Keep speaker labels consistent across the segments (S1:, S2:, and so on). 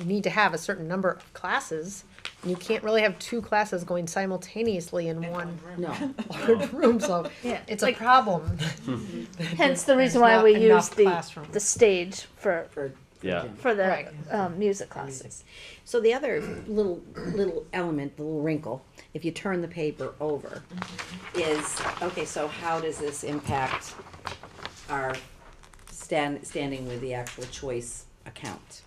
S1: you need to have a certain number of classes. And you can't really have two classes going simultaneously in one
S2: No,
S1: large room, so
S3: Yeah,
S1: it's a problem.
S3: hence the reason
S1: There's
S3: why
S1: not
S3: we use
S1: enough
S3: the,
S1: classrooms.
S3: the stage for,
S2: for.
S4: Yeah.
S2: Jim.
S3: for the,
S1: Right.
S3: um, music classes.
S2: So the other little, little element, the little wrinkle, if you turn the paper over, is, okay, so how does this impact our stand, standing with the actual choice account?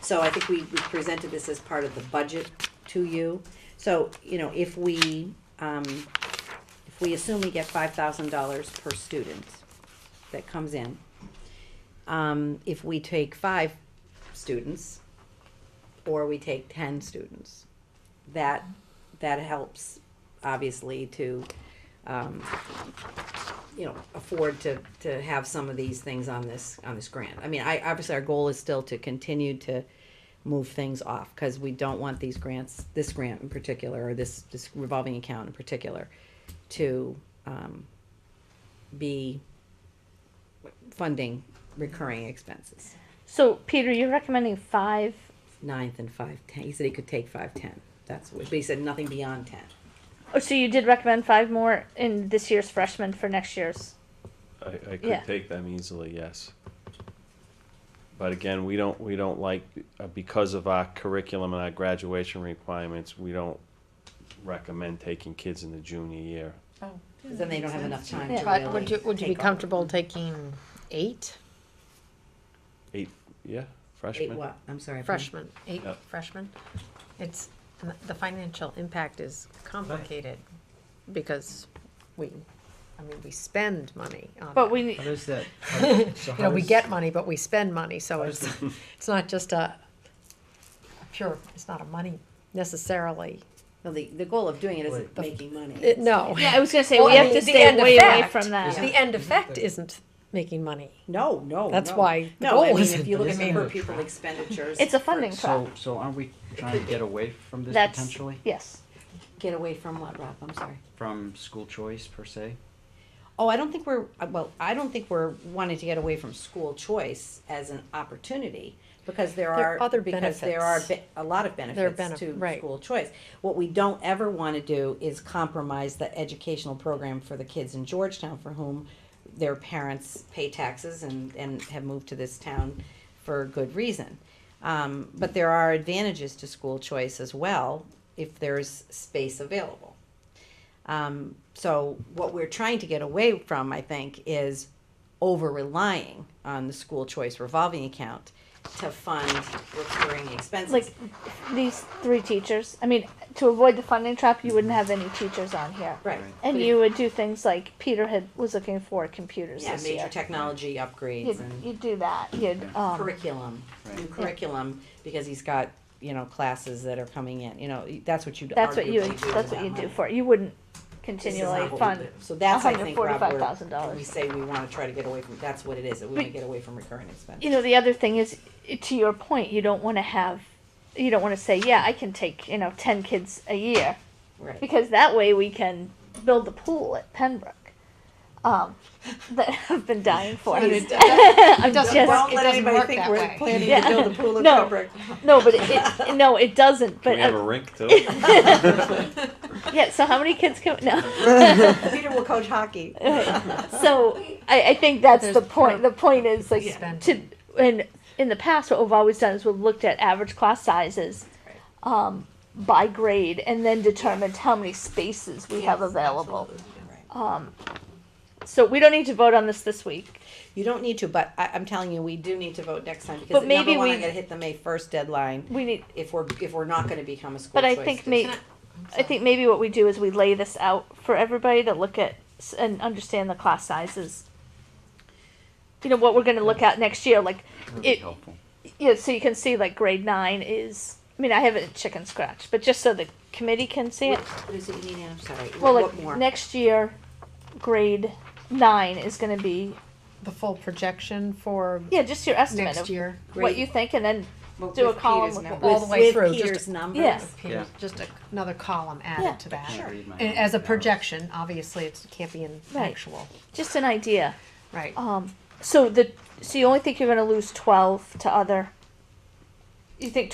S2: So I think we, we presented this as part of the budget to you. So, you know, if we, um, if we assume we get five thousand dollars per student that comes in, um, if we take five students, or we take ten students. That, that helps, obviously, to, um, you know, afford to, to have some of these things on this, on this grant. I mean, I, obviously, our goal is still to continue to move things off, cause we don't want these grants, this grant in particular, or this, this revolving account in particular, to, um, be funding recurring expenses.
S3: So Peter, you're recommending five,
S2: ninth and five ten. He said he could take five ten. That's what. But he said nothing beyond ten.
S3: oh, so you did recommend five more in this year's freshman for next year's?
S4: I, I could
S3: Yeah.
S4: take them easily, yes. But again, we don't, we don't like, uh, because of our curriculum and our graduation requirements, we don't recommend taking kids in the junior year.
S2: Then they don't have enough time to really.
S1: But would you, would you be
S2: take on
S1: comfortable taking eight
S4: Eight, yeah,
S2: Eight
S4: freshmen.
S2: what? I'm sorry.
S1: freshmen, eight
S4: Yeah.
S1: freshmen? It's, and the financial impact is complicated because we, I mean, we spend money on
S3: But
S1: that.
S3: we,
S5: How does that? How, so
S1: you
S5: how
S1: know, we
S5: does-
S1: get money, but we spend money, so
S5: does
S1: it's, it's not just a a pure, it's not a money necessarily.
S2: No, the, the goal of doing it isn't
S5: Wait.
S2: making money.
S1: It- No.
S3: yeah, I was gonna say,
S1: Well,
S3: we
S1: I
S3: have
S1: mean,
S3: to
S1: the
S3: stay
S1: end
S3: way away
S1: effect-
S3: from that.
S1: The end effect isn't making money.
S2: No, no.
S1: That's
S2: no.
S1: why the
S2: No,
S1: goal
S2: I mean,
S1: isn't-
S2: if you look at
S5: Isn't
S2: the
S5: it
S2: per
S5: a
S2: pupil
S5: trap?
S2: expenditures,
S3: It's a funding trap.
S5: So, so aren't we trying to get away from this
S3: That's,
S5: potentially?
S3: yes.
S2: get away from what, Rob? I'm sorry.
S5: From school choice per se?
S2: Oh, I don't think we're, uh, well, I don't think we're wanting to get away from school choice as an opportunity, because there
S1: There are
S2: are,
S1: other
S2: because there are
S1: benefits.
S2: be- a lot of
S1: are
S2: benefits
S1: benef-
S2: to
S1: right.
S2: school choice. What we don't ever wanna do is compromise the educational program for the kids in Georgetown for whom their parents pay taxes and, and have moved to this town for good reason. Um, but there are advantages to school choice as well, if there's space available. Um, so what we're trying to get away from, I think, is over relying on the school choice revolving account to fund recurring expenses.
S3: Like these three teachers, I mean, to avoid the funding trap, you wouldn't have any teachers on here.
S2: right.
S3: And you would do things like Peter had, was looking for computers
S2: yeah,
S3: this
S2: major
S3: year.
S2: technology upgrades
S3: You'd,
S2: and
S3: you'd do that, you'd, um,
S2: curriculum, new
S5: Right.
S2: curriculum, because he's got you know classes that are coming in. You know that's what you'd
S3: that's what you,
S2: arguably
S3: would-
S2: do with
S3: that's what
S2: that
S3: you'd do
S2: money.
S3: for it, you wouldn't
S2: This is not
S3: continually
S2: what we
S3: fund.
S2: do. So that's I think Rob, where-
S3: $145,000.
S2: when we say we want to try to get away from. That's what it is. That we want to
S3: But-
S2: get away from recurring expenses.
S3: You know, the other thing is, i- to your point, you don't wanna have, you don't wanna say, yeah, I can take, you know, ten kids a year.
S2: right.
S3: because that way we can build the pool at Pembroke um, that I've been dying for.
S1: It doesn't work,
S2: Don't
S3: just-
S1: it
S2: let
S1: doesn't
S2: anybody
S1: work
S2: think
S1: that
S2: we're
S1: way.
S2: planning
S3: Yeah.
S2: to build a pool of
S3: No.
S2: fabric.
S3: no, but it, it no, it doesn't.
S4: Do
S3: But
S4: we have a
S3: uh,
S4: rink too?
S3: yeah, so how many kids can no?
S2: Peter will coach hockey.
S3: so I, I think that's the
S1: There's
S3: point. The point is like
S1: Yeah.
S3: to and in the past what we've always done is we've looked at average class sizes um, by grade and then determined how many spaces we have available. Um, so we don't need to vote on this this week.
S2: You don't need to, but I, I'm telling you, we do need to vote next time because
S3: But
S2: number
S3: maybe
S2: one,
S3: we-
S2: I gotta hit the May first deadline
S3: We need
S2: if we're, if we're not gonna become a school
S3: But I
S2: choice
S3: think
S2: district.
S3: may, I think maybe what we do is we lay this out for everybody to look at s- and understand the class sizes. You know, what we're gonna look at next year, like,
S5: That'd be
S3: it,
S5: helpful.
S3: yeah, so you can see like grade nine is, I mean, I have it chicken scratch, but just so the committee can see it.
S2: What is it you need, I'm sorry,
S3: Well,
S2: what
S3: like,
S2: more?
S3: next year, grade nine is gonna be,
S1: The full projection for
S3: yeah, just your estimate
S1: next
S3: of
S1: year,
S3: what
S2: Grade-
S3: you think, and then
S2: Well,
S3: do a
S2: with
S3: column
S2: Peter's
S3: with
S2: numbers.
S1: all the way
S2: With
S1: through, just-
S2: Peter's numbers.
S3: Yeah.
S1: Here's
S5: Yeah.
S1: just a- another column
S3: Yeah.
S1: added to
S5: I
S1: that.
S5: can't read my
S1: And
S5: own
S1: As a
S5: notes.
S1: projection, obviously, it's- it can't be an
S3: Right.
S1: actual,
S3: just an idea.
S1: right?
S3: Um, so the so you only think you're going to lose twelve to other you think